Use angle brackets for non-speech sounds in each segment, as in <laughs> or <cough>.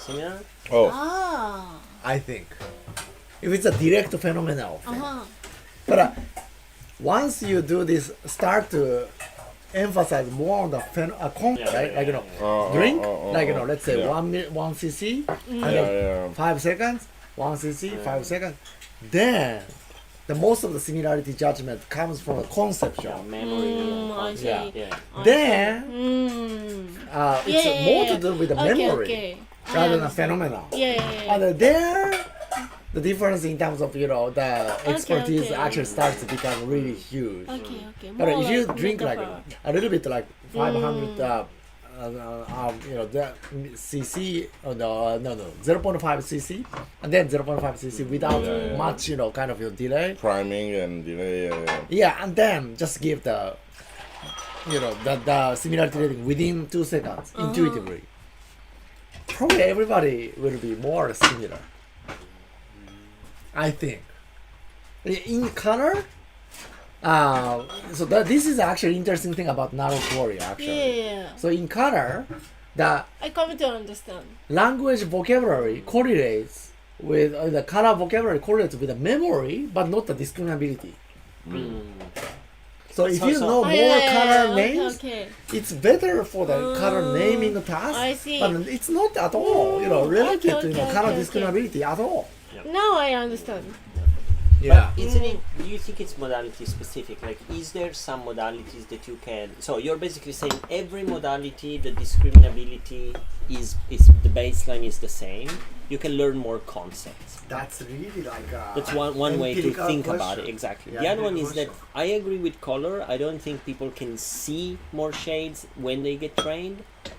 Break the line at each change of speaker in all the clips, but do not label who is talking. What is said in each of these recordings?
similar?
Oh,
Ah.
I think. If it's a direct phenomenal thing.
Uh-huh.
But uh, once you do this, start to emphasize more on the phen- uh, con-
Yeah,
right?
yeah,
like you know,
yeah,
yeah. Oh,
drink,
oh, oh, oh,
like you know,
oh.
let's say
Yeah.
one mi- one cc, and
yeah,
then
yeah. um,
five seconds, one cc,
Yeah.
five seconds. Then the most of the similarity judgment comes from the
Yeah,
conception.
memory.
Mm, I
and
see.
concept. Yeah.
Then
Mm.
uh,
Yeah,
it's
yeah,
more
yeah.
to do with the
okay,
memory
Okay. I
rather than
understand.
phenomenon.
Yeah, yeah, yeah.
And uh, there, the difference in terms of you know the expertise
okay.
actually starts to become really huge.
Okay, okay.
But
More
if you
like Mm.
drink like
metaphor.
a little bit like 500, uh, uh, uh, um, you know, the cc, oh, no, no, no, 0.5 cc, and then 0.5 cc without
Yeah, yeah.
much, you know, kind of your delay.
Priming and delay. Yeah, yeah.
Yeah, and then just give the, you know, the, the similarity rating within two seconds intuitively. Probably everybody will be more similar. I think. In color, uh, so that, this is actually interesting thing about narrow quarry
Yeah,
actually.
yeah, yeah.
So in color, the
I come to understand.
language vocabulary correlates with uh, the color vocabulary correlates with the memory, but not the discriminability.
Hmm.
So if
So-
you
so-
know
Ah,
more
yeah, yeah,
color
yeah,
names,
Okay, okay.
it's better for the
Oh,
color naming task.
I see.
But it's not at all, you know,
Mm,
related
okay,
to you know,
okay,
color
okay, okay.
discriminability at all.
Now I understand.
Yeah.
Isn't it? Do you think it's modality specific? Like, is there some modalities that you can? So you're basically saying every modality, the discriminability is is the baseline is the same. You can learn more concepts.
That's really like a
That's one, one way to think about it. Exactly.
Yeah,
the other one is that
empirical
I agree with color. I don't think people can see more shades when they get trained,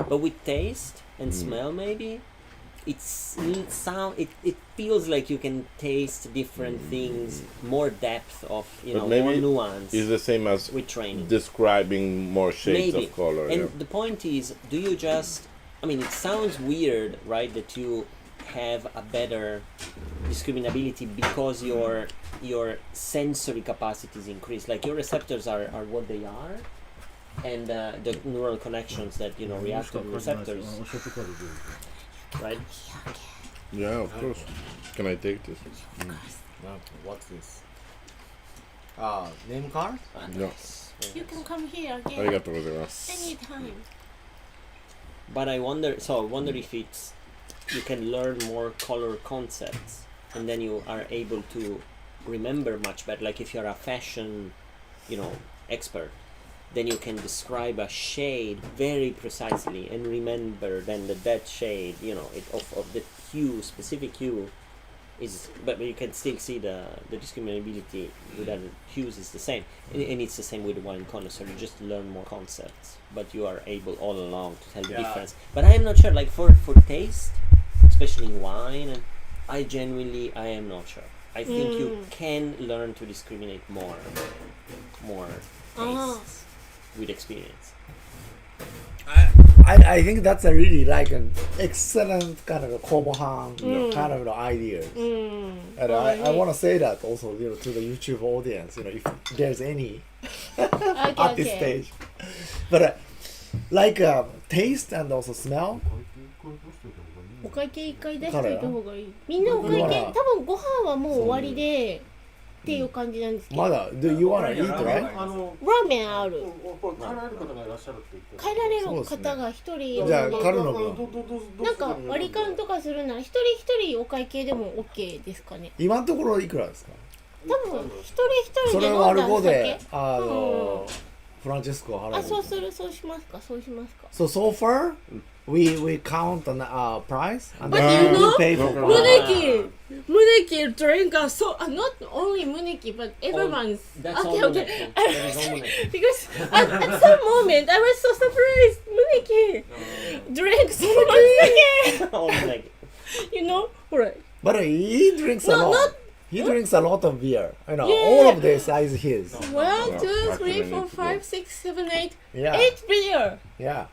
but with taste and
Hmm.
smell, maybe it's it sound. It, it feels like you can taste different things, more depth of you
Hmm. But
know, more
maybe
nuance
It's the same as
with training.
describing more shades
Maybe.
of color.
And
yeah.
the point is, do you just? I mean, it sounds weird, right? That you have a better discriminability because your your sensory capacities increase. Like your receptors are, are what they are, and uh, the neural connections that you know react to the receptors, right?
Yeah, of course. Can I take this?
What's this? Uh, name card?
No.
You can come here
あ
again
りがとうございます。
anytime.
But I wonder. So I wonder if it's you can learn more color concepts, and then you are able to remember much better. Like if you're a fashion, you know, expert, then you can describe a shade very precisely and remember then that that shade, you know, it of of the hue specific hue. Is, but you can still see the the discriminability with other hues is the same, and, and it's the same with the wine connoisseur. You just learn more concepts, but you are able all along to tell the
Yeah.
difference. But I am not sure. Like for for taste, especially in wine, and I genuinely I am not sure. I think you
Mm.
can learn to discriminate more, more
Uh-huh.
tastes with experience. <laughs>
I, I I think that's a really like an excellent kind of a Kobohan you know,
Mm.
kind of you know, idea.
Mm.
And
Oh,
I, I
yeah.
want to say that also you know to the YouTube audience you know if there's any
Okay,
at this
okay.
stage, but uh, like uh, taste and also smell.
お会計一回出しておいた方がいい。みんなお会
だか
計、多
ら
分ご飯はもう終わりで、っていう感じなんですけど。
まだ do you wanna eat right?
あの
ラーメンある。
これ帰られる方がいらっしゃるって言って
帰られる
そうですね
方が一人いる
じゃあ
ので
カルノ
どう
君
どうどうどう
なんか割り勘とかするなら一人一人お会計でも OK ですかね
今のところいくらですか？
多分一人一人
そ
で
れ
飲
を
ん
割
だ
る
お
5
酒
であのフランチェスコを払う。
あそうするそうしますかそうしますか
So so far we we count on uh, price and
But
then
you
we
know-
pay for
No,
ム
no,
price.
ネキムネキ drink a so uh, not only ムネキ but everyone's
That's
okay
all
okay
Muneki. That
<laughs>
is all Muneki.
because at, at some moment I was so surprised ムネキ drink <laughs> so much sake
all like
you know ほら
But uh, he drinks a
No,
lot.
not-
he drinks a lot of beer. You know,
Yeah.
all of this is his.
one
Yeah, back
two
to
three four
Muneki.
five six seven eight
Yeah.
eight beer
Yeah.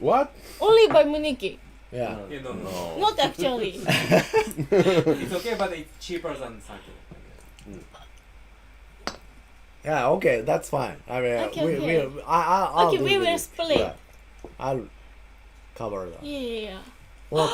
What?
only by ムネキ
Yeah.
Yeah, no, no.
Not actually.
It's okay, but it's cheaper than sake.
Yeah. Okay. That's fine. I mean,
Okay,
we,
okay.
Ah, we, I, I, I'll
okay,
do
we will
this.
split.
Yeah. I'll cover that.
Yeah, yeah, yeah.
or